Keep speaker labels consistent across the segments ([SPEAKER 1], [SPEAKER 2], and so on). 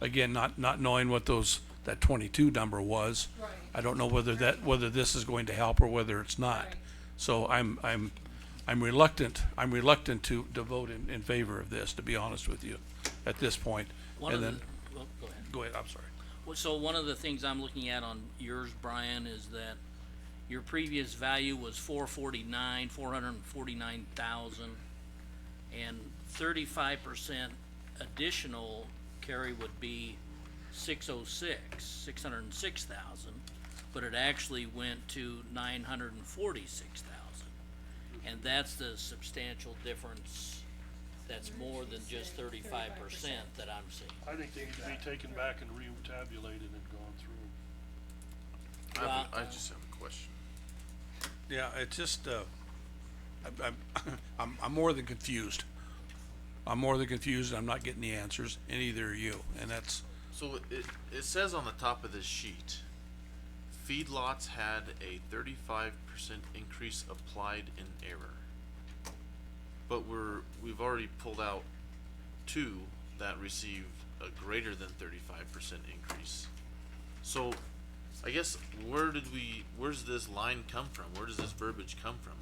[SPEAKER 1] again, not, not knowing what those, that twenty-two number was.
[SPEAKER 2] Right.
[SPEAKER 1] I don't know whether that, whether this is going to help or whether it's not.
[SPEAKER 2] Right.
[SPEAKER 1] So I'm, I'm, I'm reluctant, I'm reluctant to, to vote in, in favor of this, to be honest with you, at this point.
[SPEAKER 3] One of
[SPEAKER 1] And
[SPEAKER 3] the,
[SPEAKER 1] then,
[SPEAKER 3] well, go ahead.
[SPEAKER 1] go ahead, I'm sorry.
[SPEAKER 3] Well, So one of the things I'm looking at on yours, Brian, is that your previous value was four forty-nine, four hundred and forty-nine thousand. And thirty-five percent additional carry would be six oh six, six hundred and six thousand. But it actually went to nine hundred and forty-six thousand. And that's the substantial difference. That's more than just thirty-five percent that I'm seeing.
[SPEAKER 4] I think they need to be taken back and re-tabulated and gone through.
[SPEAKER 5] I have, a- I
[SPEAKER 3] Well,
[SPEAKER 5] just have a question.
[SPEAKER 1] Yeah, it's just, uh, I- I'm, I'm, I'm more than confused. I'm more than confused, and I'm not getting the answers, and neither are you, and that's,
[SPEAKER 5] So it, it says on the top of this sheet, feedlots had a thirty-five percent increase applied in error. But we're, we've already pulled out two that received a greater than thirty-five percent increase. So I guess where did we, where's this line come from? Where does this verbiage come from?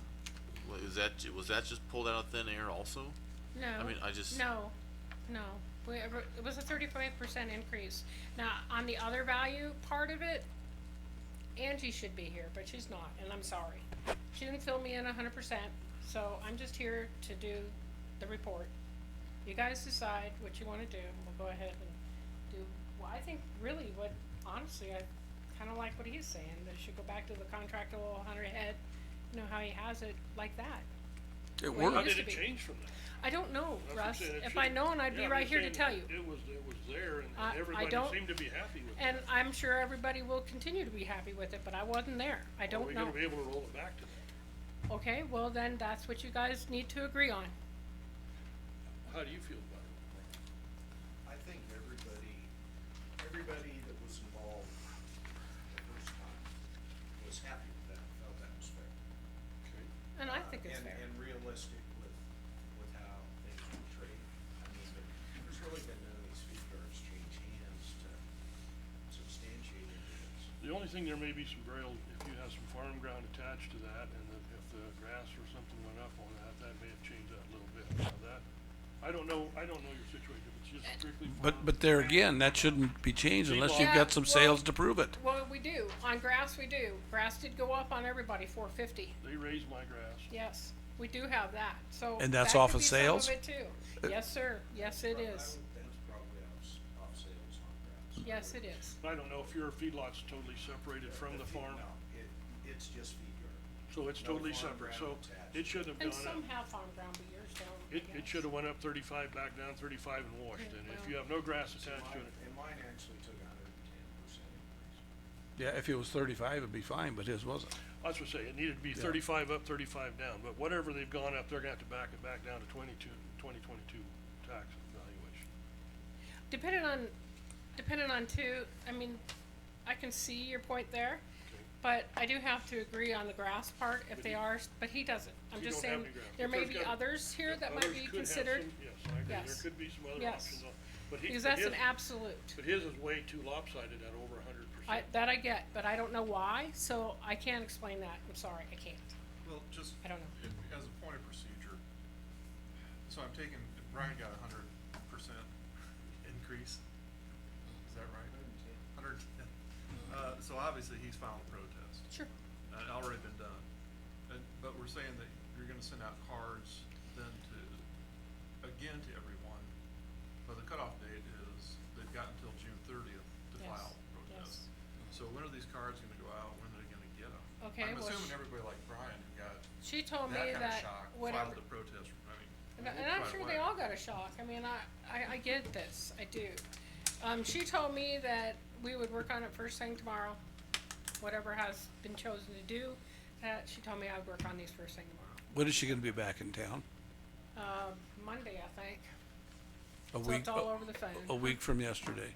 [SPEAKER 5] Wa- Is that, was that just pulled out of thin air also?
[SPEAKER 2] No.
[SPEAKER 5] I mean, I just-
[SPEAKER 2] No, no. We, it was a thirty-five percent increase. Now, on the other value part of it, Angie should be here, but she's not, and I'm sorry. She didn't fill me in hundred percent, so I'm just here to do the report. You guys decide what you wanna do, and we'll go ahead and do, well, I think really what, honestly, I kinda like what he's saying, that should go back to the contractual hundred head, you know, how he has it like that.
[SPEAKER 1] it
[SPEAKER 2] Well, you
[SPEAKER 4] How
[SPEAKER 1] worked.
[SPEAKER 4] did
[SPEAKER 2] used to
[SPEAKER 4] it
[SPEAKER 2] be.
[SPEAKER 4] change from that?
[SPEAKER 2] I don't know,
[SPEAKER 4] That's what I'm
[SPEAKER 2] Russ.
[SPEAKER 4] saying, it
[SPEAKER 2] If I'd
[SPEAKER 4] should've-
[SPEAKER 2] known, I'd
[SPEAKER 4] Yeah,
[SPEAKER 2] be
[SPEAKER 4] I'm
[SPEAKER 2] right
[SPEAKER 4] just
[SPEAKER 2] here to
[SPEAKER 4] saying
[SPEAKER 2] tell
[SPEAKER 4] it-
[SPEAKER 2] you.
[SPEAKER 4] It was, it was there and-
[SPEAKER 2] I- I
[SPEAKER 4] and everybody
[SPEAKER 2] don't-
[SPEAKER 4] seemed to be happy with it.
[SPEAKER 2] And I'm sure everybody will continue to be happy with it, but I wasn't there. I
[SPEAKER 4] Are we
[SPEAKER 2] don't know.
[SPEAKER 4] gonna be able to roll it back to that?
[SPEAKER 2] Okay, well then, that's what you guys need to agree on.
[SPEAKER 4] How do you feel about it?
[SPEAKER 6] I think everybody, everybody that was involved the first time was happy with that, felt that was fair.
[SPEAKER 4] Okay.
[SPEAKER 2] And I think it's
[SPEAKER 6] And-
[SPEAKER 2] fair.
[SPEAKER 6] And realistic with, with how things were traded. I mean, but there's really been none of these feed yards change hands to substantiate any of
[SPEAKER 4] The
[SPEAKER 6] this.
[SPEAKER 4] only thing, there may be some burial, if you have some farm ground attached to that, and if, if the grass or something went up on that, that may have changed that a little bit. Now that, I don't know, I don't know your situation, if it's just strictly farm.
[SPEAKER 1] But, but there again, that shouldn't be changed unless you've
[SPEAKER 2] Yeah,
[SPEAKER 1] got some
[SPEAKER 2] well-
[SPEAKER 1] sales to prove it.
[SPEAKER 2] Well, we do. On grass, we do. Grass did go up on everybody, four fifty.
[SPEAKER 4] They raised my grass.
[SPEAKER 2] Yes, we do have that, so.
[SPEAKER 1] And that's
[SPEAKER 2] that could
[SPEAKER 1] off of
[SPEAKER 2] be some
[SPEAKER 1] sales? Uh,
[SPEAKER 2] it too. Yes, sir. Yes, it
[SPEAKER 6] Prob- I
[SPEAKER 2] is.
[SPEAKER 6] would- That's probably off, s- off sales on grounds.
[SPEAKER 2] Yes, it is.
[SPEAKER 4] I don't know if your feedlot's totally separated from the farm,
[SPEAKER 6] No, it, it's just feed yard.
[SPEAKER 4] so it's
[SPEAKER 6] No
[SPEAKER 4] totally
[SPEAKER 6] farm
[SPEAKER 4] separate, so
[SPEAKER 6] ground attached.
[SPEAKER 4] it shouldn't have
[SPEAKER 2] And
[SPEAKER 4] gone up.
[SPEAKER 2] some have farm ground, but yours don't.
[SPEAKER 4] It, it
[SPEAKER 2] Yes.
[SPEAKER 4] should've went up thirty-five, back down thirty-five and washed,
[SPEAKER 2] Yeah,
[SPEAKER 4] and if
[SPEAKER 2] well.
[SPEAKER 4] you have no grass
[SPEAKER 6] So
[SPEAKER 4] attached to
[SPEAKER 6] mine-
[SPEAKER 4] it,
[SPEAKER 6] And mine actually took a hundred and ten percent increase.
[SPEAKER 1] Yeah, if it was thirty-five, it'd be fine, but his wasn't.
[SPEAKER 4] that's what I say, it needed to be
[SPEAKER 1] Yeah.
[SPEAKER 4] thirty-five up, thirty-five down, but whatever they've gone up, they're gonna have to back it back down to twenty-two, twenty twenty-two tax valuation.
[SPEAKER 2] Depending on, depending on two, I mean, I can see your point there, but I do have to agree on the grass part if they are, but he doesn't. I'm
[SPEAKER 4] You
[SPEAKER 2] just
[SPEAKER 4] don't have
[SPEAKER 2] saying,
[SPEAKER 4] any grass.
[SPEAKER 2] there may
[SPEAKER 4] There's
[SPEAKER 2] be
[SPEAKER 4] gotta-
[SPEAKER 2] others here that might
[SPEAKER 4] Others
[SPEAKER 2] be
[SPEAKER 4] could have
[SPEAKER 2] considered,
[SPEAKER 4] some- Yes, I agree,
[SPEAKER 2] Yes.
[SPEAKER 4] there could be some other
[SPEAKER 2] Yes.
[SPEAKER 4] options, on- but he,
[SPEAKER 2] because
[SPEAKER 4] but
[SPEAKER 2] that's
[SPEAKER 4] his,
[SPEAKER 2] an absolute.
[SPEAKER 4] but his is way too lopsided at over a hundred
[SPEAKER 2] I,
[SPEAKER 4] percent.
[SPEAKER 2] that I get, but I don't know why, so I can't explain that. I'm sorry, I can't.
[SPEAKER 7] Well, just.
[SPEAKER 2] I don't know.
[SPEAKER 7] i- As a point of procedure, so I'm taking, if Brian got a hundred percent increase, is that right? Hundred, uh, so obviously he's filed a protest,
[SPEAKER 2] Sure.
[SPEAKER 7] uh, it already been done. And, but we're saying that you're gonna send out cards then to, again to everyone, but the cutoff date is, they've got until June thirtieth to
[SPEAKER 2] Yes,
[SPEAKER 7] file protest. So when are these cards gonna go out, when are they gonna get them?
[SPEAKER 2] Okay,
[SPEAKER 7] I'm
[SPEAKER 2] well, sh-
[SPEAKER 7] assuming everybody like Brian who got
[SPEAKER 2] She told me
[SPEAKER 7] that kind of
[SPEAKER 2] that
[SPEAKER 7] shock,
[SPEAKER 2] whatever,
[SPEAKER 7] filed the protest, I mean.
[SPEAKER 2] And, I- and I'm sure they all got a shock. I mean, I, I, I get this. I do. Um, she told me that we would work on it first thing tomorrow, whatever has been chosen to do. That she told me I'd work on these first thing tomorrow,
[SPEAKER 1] When is she gonna be back in town?
[SPEAKER 2] um, Monday, I think.
[SPEAKER 1] A
[SPEAKER 2] So
[SPEAKER 1] week,
[SPEAKER 2] it's all
[SPEAKER 1] a-
[SPEAKER 2] over the phone.
[SPEAKER 1] uh, a week from yesterday.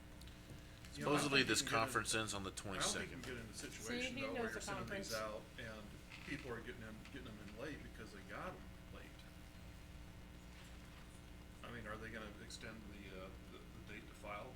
[SPEAKER 7] You know, I don't
[SPEAKER 5] Supposedly
[SPEAKER 7] think you
[SPEAKER 5] this
[SPEAKER 7] can get in-
[SPEAKER 5] conference ends on the
[SPEAKER 7] I don't think you
[SPEAKER 5] twenty-second.
[SPEAKER 7] can get in a situation
[SPEAKER 2] he
[SPEAKER 7] though
[SPEAKER 2] knows
[SPEAKER 7] where
[SPEAKER 2] the
[SPEAKER 7] you're sending
[SPEAKER 2] conference.
[SPEAKER 7] these out and people are getting them, getting them in late because they got them late. I mean, are they gonna extend the, uh, the, the date to file